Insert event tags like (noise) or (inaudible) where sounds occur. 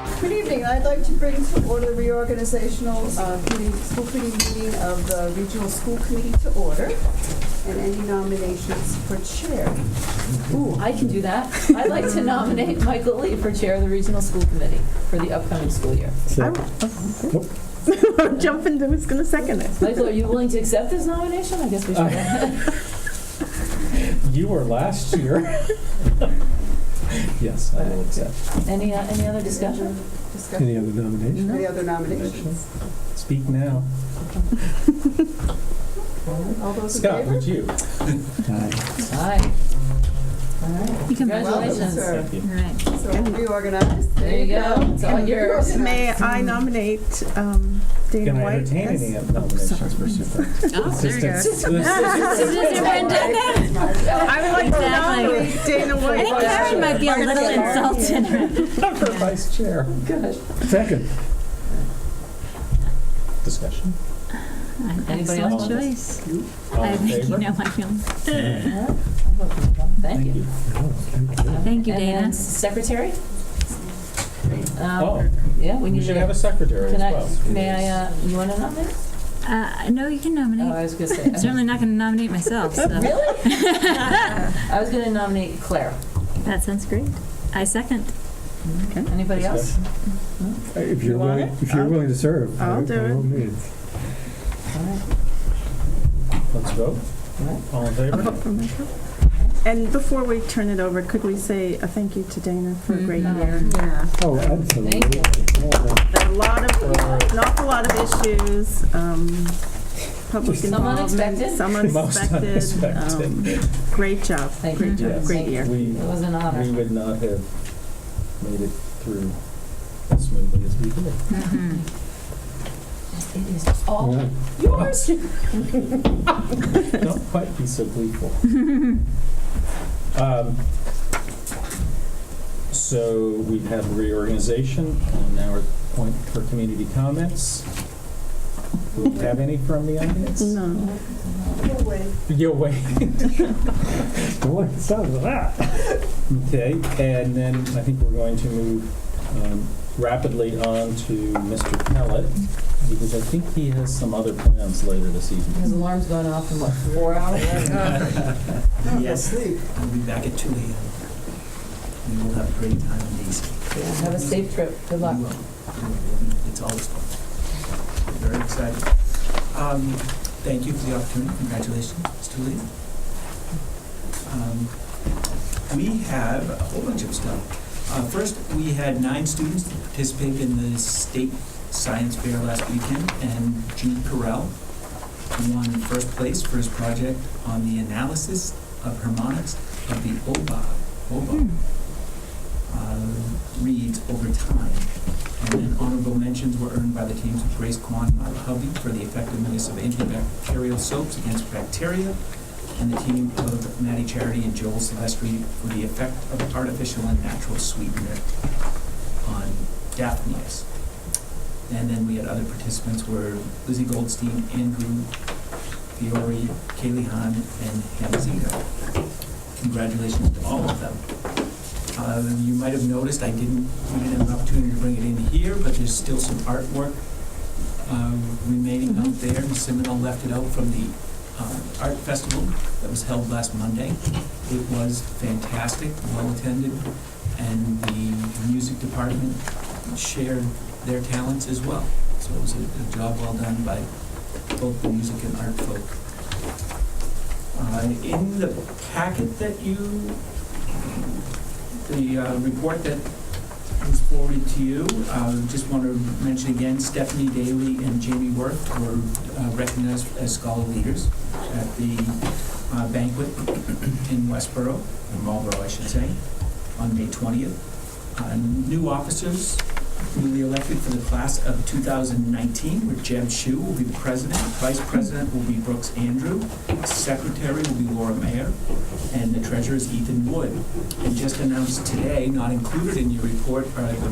morning, I'd like to bring to order the reorganizational uh, committee, school committee meeting of the Regional School Committee to order, and any nominations for chair. Ooh, I can do that. I'd like to nominate Michael Lee for Chair of the Regional School Committee for the upcoming school year. I'm jumping to who's gonna second it. Michael, are you willing to accept this nomination? I guess we should. uh, (laughs) You were last year. (laughs) Yes, I will accept. Any, uh, any other discussion? Discussion, Any other nominations? any other nominations? Speak now. All those in Scott, favor? would you? Aye. Aye. All right. You can- Welcome, Congratulations. sir. Right. So reorganized, There you go. It's all yours. (laughs) May I nominate um, Dana Can I White? entertain as- any nominations for super? (laughs) I would like to nominate Dana White. I think Karen might be a little insulted. For vice chair. Good. Second. Discussion. Anybody Excellent else? choice. All I in think you favor? know I feel. Thank you. Oh, thank you. Thank you, And then Dana. Secretary? Um, Oh, Yeah, we we need should to- have a secretary as Can I, well. may I, uh, you want to nominate? Uh, no, you can Oh, nominate. I was going to say. I'm certainly not going to nominate myself, so (laughs) Really? (laughs) I was going to nominate Claire. that sounds great. Mm-hmm. I second. Anybody else? Hmm? If you're want willing, if you're willing to serve. I'll by- do by it. all means. All right. Let's vote. All in I'll favor? vote for Michael. And before we turn it over, could we say a thank you to Dana for a great Mhm. year? Yeah. Oh, Thank absolutely. you. A lot of, an awful lot of issues, um, public Some involvement. unexpected. (laughs) Some Most unexpected. unexpected. um, Great job, Thank you. great job, Yes. great year. We, It was an we honor. would not have made it through as smoothly as we did. Mm-hmm. Mhm. It is all Yeah. (laughs) yours. Don't quite be so gleeful. (laughs) Um, So we have reorganization, and now we're at the point for community comments. Do we have any from the audience? No. You'll wait. (laughs) Don't like the sound of that. Okay, and then I think we're going to move um, rapidly on to Mr. Pellet, because I think he has some other plans later this evening. His alarm's going off in what, four hours? Yes, Sleep. I'll be back at 2 a.m. We will have a great time in these. Have a safe trip. Good luck. We will. We will. It's always fun. We're Very excited. Um, Thank you for the opportunity. Congratulations, Ms. Tully. Um, We have a whole bunch of stuff. Uh, First, we had nine students participate in the state science fair last weekend, and Jude Carell won first place for his project on the analysis of harmonics of the oboe, oboe uh, reads over time. And then honorable mentions were earned by the teams of Grace Kwan and Myla Hubby for the effectiveness of antibacterial soaps against bacteria, and the team of Maddie Charity and Joel Silvestri for the effect of artificial and natural sweetener on Daphneus. And then we had other participants were Lizzie Goldstein, Andrew Fiore, Kaylee Hahn, and Hannah Zito. Congratulations to all of them. Uh, You might have noticed, I didn't, we didn't have an opportunity to bring it in here, but there's still some artwork um, remaining out there. And Seminole left it out from the um, art festival that was held last Monday. It was fantastic, well-attended, and the music department shared their talents as well. So it was a a job well done by both the music and art folk. Uh, In the packet that you the uh, report that was forwarded to you. Uh, Just want to mention again, Stephanie Daly and Jamie Worth were uh, recognized as scholar leaders at the uh, banquet in Westboro, or Marlboro, I should say, on May 20th. Uh, New officers newly elected for the class of 2019 were Jeb Shu will be the president, vice president will be Brooks Andrew, secretary will be Laura Mayer, and the treasurer is Ethan Wood and just announced today, not included in your report, are the